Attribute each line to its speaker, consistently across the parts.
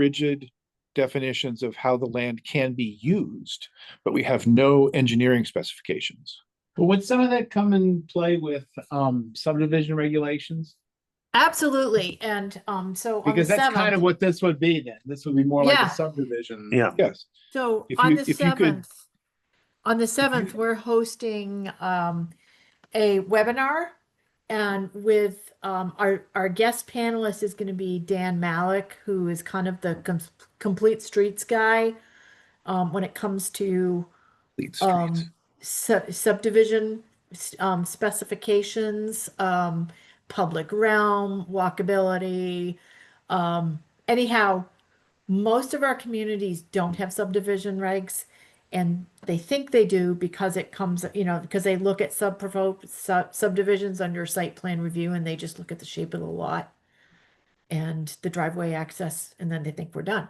Speaker 1: rigid definitions of how the land can be used, but we have no engineering specifications.
Speaker 2: But would some of that come in play with um subdivision regulations?
Speaker 3: Absolutely, and um, so on the
Speaker 2: Because that's kind of
Speaker 3: seventh,
Speaker 2: what this would be then. This would be more like
Speaker 3: Yeah.
Speaker 2: a subdivision.
Speaker 4: Yeah.
Speaker 1: Yes,
Speaker 3: so
Speaker 1: if
Speaker 3: on
Speaker 1: you-
Speaker 3: the
Speaker 1: if you could-
Speaker 3: seventh. On the seventh, we're hosting um a webinar. And with um our our guest panelist is gonna be Dan Malik, who is kind of the com- complete streets guy. Um, when it comes to
Speaker 1: lead streets.
Speaker 3: um sub- subdivision s- um specifications, um public realm, walkability. Um anyhow, most of our communities don't have subdivision regs and they think they do because it comes, you know, because they look at sub sub subdivisions under site plan review and they just look at the shape of the lot and the driveway access and then they think we're done.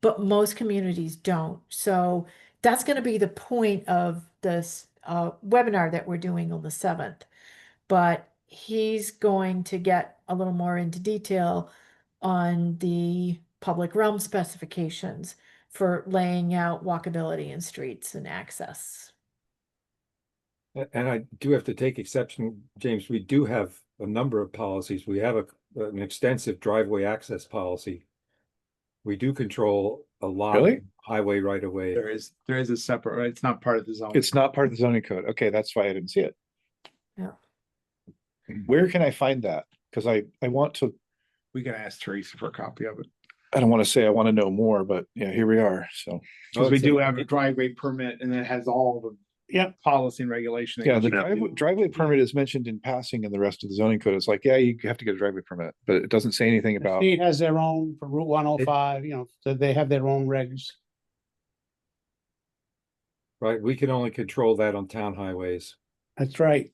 Speaker 3: But most communities don't. So that's going to be the point of this uh, webinar that we're doing on the 7th. But he's going to get a little more into detail on the public realm specifications for laying out walkability and streets and access.
Speaker 5: A- And I do have to take exception, James, we do have a number of policies. We have a, an extensive driveway access policy. We do control a lot
Speaker 1: Really?
Speaker 5: of highway right of way.
Speaker 2: There is, there is a separate, right? It's not part of the zone.
Speaker 1: It's not part of the zoning code. Okay, that's why I didn't see it.
Speaker 3: Yeah.
Speaker 1: Where can I find that? Because I, I want to,
Speaker 2: We can ask Teresa for a copy of it.
Speaker 1: I don't want to say I want to know more, but yeah, here we are. So,
Speaker 2: Because we do have a driveway permit and it has all the
Speaker 4: Yep.
Speaker 2: policy and regulation. that
Speaker 1: yeah, the
Speaker 2: you can
Speaker 1: driveway,
Speaker 2: do.
Speaker 1: driveway permit is mentioned in passing in the rest of the zoning code. It's like, yeah, you have to get a driveway permit, but it doesn't say anything
Speaker 6: The
Speaker 1: about,
Speaker 6: State has their own for Route one oh five, you know, so they have their own regs.
Speaker 5: Right, we can only control that on town highways.
Speaker 6: That's right.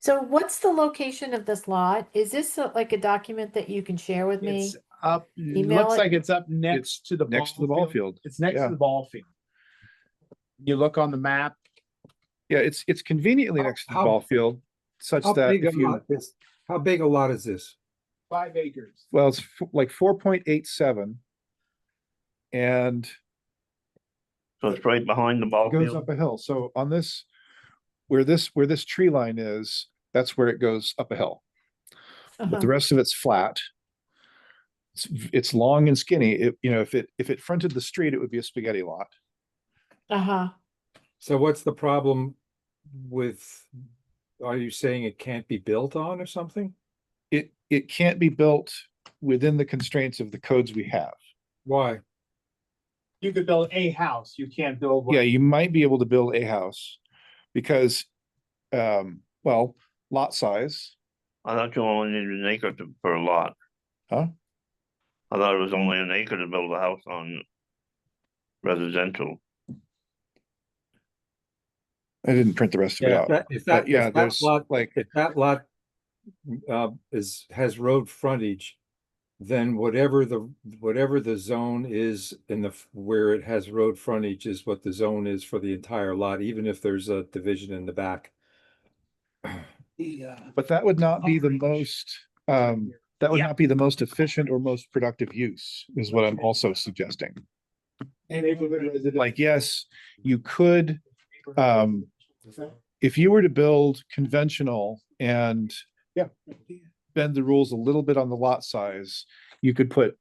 Speaker 3: So what's the location of this lot? Is this a- like a document that you can share with me?
Speaker 2: It's up, it
Speaker 3: Email
Speaker 2: looks
Speaker 3: it.
Speaker 2: like it's up next to the.
Speaker 1: next to the ball field.
Speaker 2: It's next
Speaker 1: Yeah.
Speaker 2: to the ball field. You look on the map,
Speaker 1: Yeah, it's, it's conveniently next to the
Speaker 5: How-
Speaker 1: ball field such
Speaker 5: How
Speaker 1: that
Speaker 5: big a
Speaker 1: if you,
Speaker 5: lot is, how big a lot is this?
Speaker 2: five acres.
Speaker 1: well, it's f- like four point eight seven. And
Speaker 4: So it's right behind the ball
Speaker 1: goes
Speaker 4: field.
Speaker 1: up a hill. So on this, where this, where this tree line is, that's where it goes up a hill. But
Speaker 3: Uh-huh.
Speaker 1: the rest of it's flat. It's, v- it's long and skinny. It, you know, if it, if it fronted the street, it would be a spaghetti lot.
Speaker 3: Uh-huh.
Speaker 5: So what's the problem with, are you saying it can't be built on or something?
Speaker 1: It, it can't be built within the constraints of the codes we have.
Speaker 5: Why?
Speaker 2: You could build a house, you can't build. what-
Speaker 1: Yeah, you might be able to build a house because, um, well, lot size,
Speaker 4: I thought you only needed an acre to, for a lot.
Speaker 1: Huh?
Speaker 4: I thought it was only an acre to build a house on residential.
Speaker 1: I didn't print the rest of it
Speaker 5: Yeah,
Speaker 1: out.
Speaker 5: that- if that-
Speaker 1: But
Speaker 5: if
Speaker 1: yeah,
Speaker 5: that
Speaker 1: there's
Speaker 5: lot-
Speaker 1: like,
Speaker 5: if that lot uh, is, has road frontage, then whatever the, whatever the zone is in the, f- where it has road frontage is what the zone is for the entire lot, even if there's a division in the back.
Speaker 6: uh,
Speaker 1: but that would not be the most, um, that would not be the most efficient or most productive use is what I'm also suggesting.
Speaker 2: Neighborhood residential.
Speaker 1: Like, yes, you could, um, if you were to build conventional and yeah, bend the rules a little bit on the lot size, you could put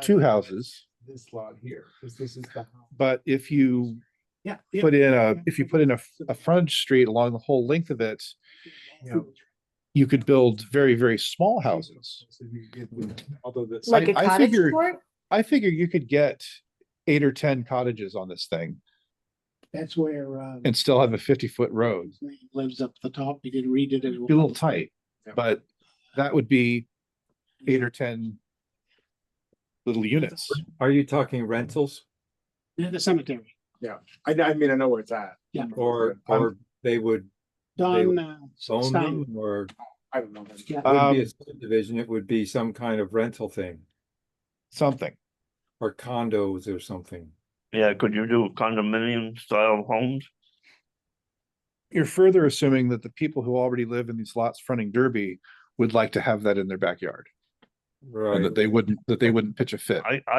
Speaker 1: two houses,
Speaker 2: This lot here, because this is the. house.
Speaker 1: but if you
Speaker 2: Yeah.
Speaker 1: put in a, if you put in a, a front street along the whole length of it, you could build very, very small houses.
Speaker 2: Although this.
Speaker 3: Like
Speaker 1: I-
Speaker 3: a
Speaker 1: I
Speaker 3: cottage
Speaker 1: figure-
Speaker 3: court?
Speaker 1: I figure you could get eight or ten cottages on this thing
Speaker 6: That's where, uh,
Speaker 1: and still have a fifty-foot road.
Speaker 6: lives up the top. He did read it. as
Speaker 1: Be a
Speaker 6: well.
Speaker 1: little tight,
Speaker 2: Yeah.
Speaker 1: but that would be eight or ten little units.
Speaker 5: Are you talking rentals
Speaker 6: Near the cemetery.
Speaker 2: I, I mean, I know where it's at.
Speaker 6: Yeah.
Speaker 5: or,
Speaker 1: I'm-
Speaker 5: or they would
Speaker 6: Don, uh,
Speaker 5: own
Speaker 6: Stein,
Speaker 5: them or
Speaker 2: I don't know.
Speaker 6: Yeah.
Speaker 5: it wouldn't
Speaker 1: Um,
Speaker 5: be a subdivision, it would be some kind of rental thing
Speaker 1: Something.
Speaker 5: or condos or something.
Speaker 4: Yeah, could you do condominium style homes?
Speaker 1: You're further assuming that the people who already live in these lots fronting Derby would like to have that in their backyard
Speaker 5: Right.
Speaker 1: and that they wouldn't, that they wouldn't pitch a fit.
Speaker 4: I,